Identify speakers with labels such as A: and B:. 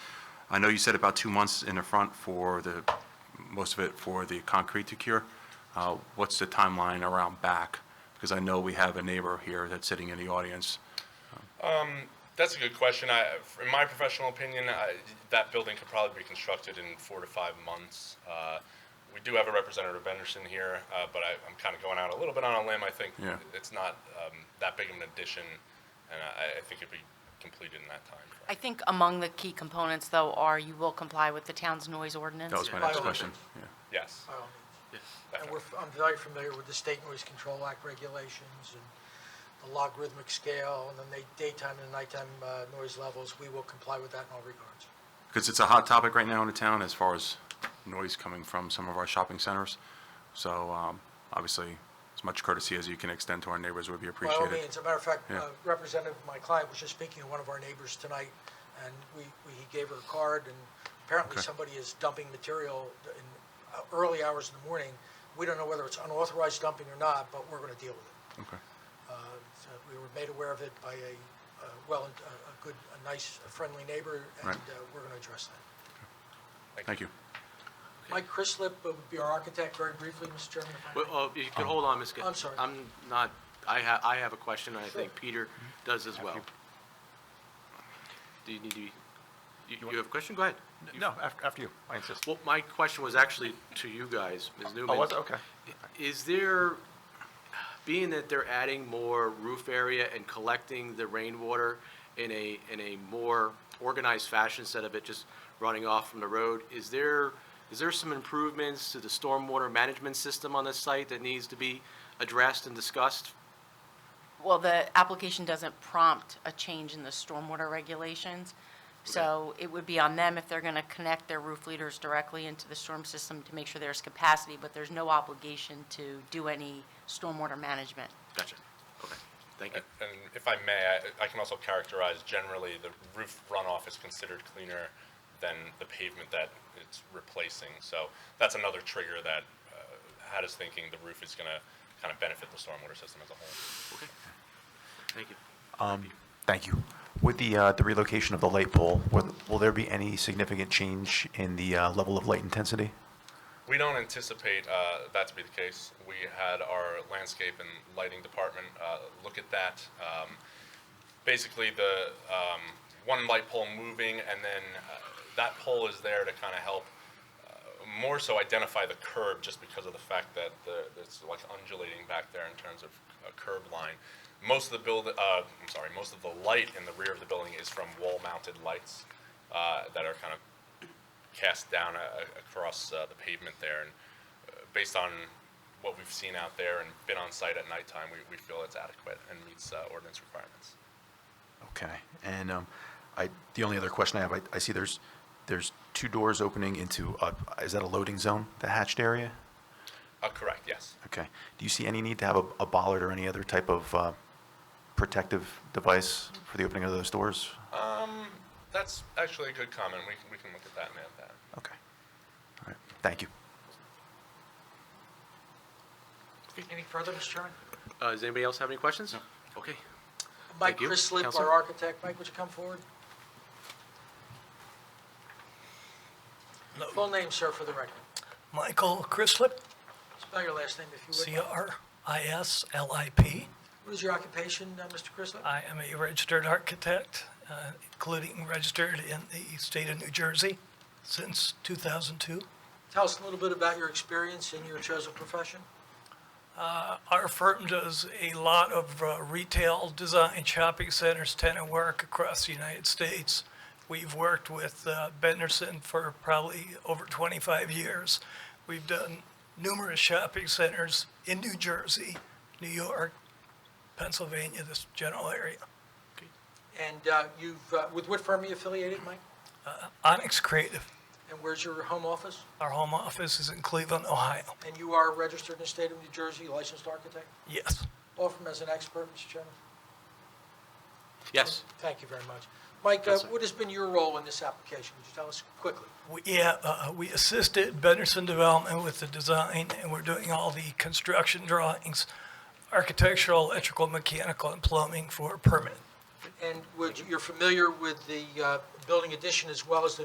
A: I know you said about two months in the front for the, most of it for the concrete to cure. Uh, What's the timeline around back? Because I know we have a neighbor here that's sitting in the audience.
B: That's a good question. I, in my professional opinion, I, that building could probably be constructed in four to five months. Uh, we do have a representative Benderson here, uh, but I, I'm kind of going out a little bit on a limb. I think
A: Yeah.
B: it's not um, that big of an addition, and I, I think it'd be completed in that time. frame.
C: I think among the key components, though, are you will comply with the town's noise ordinance.
A: That was my
D: By
A: next
D: all
A: question.
D: means.
A: Yeah.
B: Yes.
D: by all means. And
B: definitely.
D: we're, I'm very familiar with the State Noise Control Act regulations and the logarithmic scale and the na- daytime and nighttime uh, noise levels. We will comply with that in all regards.
A: Because it's a hot topic right now in the town as far as noise coming from some of our shopping centers. So um, obviously, as much courtesy as you can extend to our neighbors would be
D: By all
A: appreciated.
D: means, as a matter of fact,
A: Yeah.
D: uh, representative, my client was just speaking to one of our neighbors tonight, and we, we- he gave her a card, and apparently
A: Okay.
D: somebody is dumping material in uh, early hours in the morning. We don't know whether it's unauthorized dumping or not, but we're going to deal with it.
A: Okay.
D: Uh, so We were made aware of it by a, uh, well, a a good, a nice, friendly neighbor, and
A: Right.
D: uh, we're going to address that.
A: Thank you.
D: Mike Chrislip uh, would be our architect, very briefly, Mr. Chairman. if I may.
E: Well, uh, if you could hold on, Ms. Gill.
D: I'm sorry.
E: I'm not, I have, I have a question, and I think Peter does as well. Do you need to, be- you you have a question? Go ahead.
F: No, after, after you, I insist.
E: Well, my question was actually to you guys, Ms. Newman.
F: Oh, was it? Okay.
E: Is there, being that they're adding more roof area and collecting the rainwater in a, in a more organized fashion instead of it just running off from the road, is there, is there some improvements to the stormwater management system on this site that needs to be addressed and discussed?
C: Well, the application doesn't prompt a change in the stormwater regulations, so it would be on them if they're going to connect their roof leaders directly into the storm system to make sure there's capacity, but there's no obligation to do any stormwater management.
E: Gotcha. Okay, thank you.
B: And and if I may, I, I can also characterize generally the roof runoff is considered cleaner than the pavement that it's replacing. So that's another trigger that uh, had us thinking the roof is going to kind of benefit the stormwater system as a whole.
E: Thank you.
F: Thank you. With the, uh, the relocation of the light pole, will, will there be any significant change in the, uh, level of light intensity?
B: We don't anticipate uh, that to be the case. We had our landscape and lighting department uh, look at that. Um, basically, the um, one light pole moving, and then uh, that pole is there to kind of help uh, more so identify the curb just because of the fact that the, it's like undulating back there in terms of a curb line. Most of the build, uh, I'm sorry, most of the light in the rear of the building is from wall-mounted lights, uh, that are kind of cast down a, a- across, uh, the pavement there. And uh, based on what we've seen out there and been on site at nighttime, we, we feel it's adequate and meets, uh, ordinance requirements.
F: Okay, and, um, I, the only other question I have, I, I see there's, there's two doors opening into, uh, is that a loading zone, the hatched area?
B: Uh, correct, yes.
F: Okay. Do you see any need to have a, a bollard or any other type of, uh, protective device for the opening of those doors?
B: That's actually a good comment. We can, we can look at that and add that.
F: Okay. All right, thank you.
D: Any further, Mr. Chairman?
E: Uh, does anybody else have any questions? Okay.
D: Mike
E: you.
D: Chrislip,
E: Counselor?
D: our architect. Mike, would you come forward? Full name, sir, for the record.
G: Michael Crislip,
D: Spell your last name if you would.
G: C-R-I-S-L-I-P.
D: What is your occupation, uh, Mr. Chrislip?
G: I am a registered architect, uh, including registered in the state of New Jersey since 2002.
D: Tell us a little bit about your experience in your chosen profession.
G: Our firm does a lot of uh, retail design, shopping centers, tenant work across the United States. We've worked with uh, Benderson for probably over 25 years. We've done numerous shopping centers in New Jersey, New York, Pennsylvania, this general area.
D: And uh, you've, uh, with what firm are you affiliated, Mike?
G: Onyx Creative.
D: And where's your home office?
G: Our home office is in Cleveland, Ohio.
D: And you are registered in the state of New Jersey, licensed architect?
G: Yes.
D: Offer him as an expert, Mr. Chairman.
E: Yes.
D: Thank you very much. Mike, uh,
E: Yes, sir.
D: what has been your role in this application? Would you tell us quickly?
G: We, yeah, uh, we assisted Benderson Development with the design, and we're doing all the construction drawings, architectural, electrical, mechanical, and plumbing for a permit.
D: And would, you- you're familiar with the uh, building addition as well as the